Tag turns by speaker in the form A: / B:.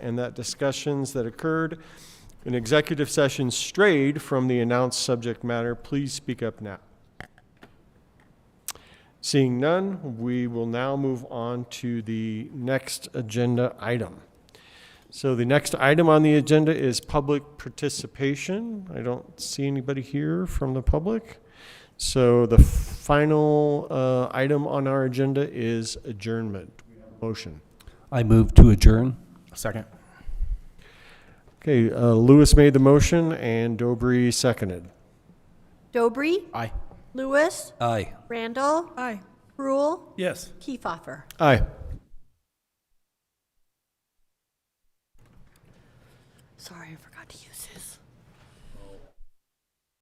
A: and that discussions that occurred in executive session strayed from the announced subject matter, please speak up now. Seeing none, we will now move on to the next agenda item. So the next item on the agenda is public participation. I don't see anybody here from the public. So the final uh, item on our agenda is adjournment. Motion.
B: I move to adjourn.
C: Second.
A: Okay, uh, Lewis made the motion and Dobry seconded.
D: Dobry,
C: Aye.
D: Lewis,
B: Aye.
D: Randall. Aye. Rule,
C: Yes.
D: Kiefhoffer.
A: Aye.
D: Sorry, I forgot.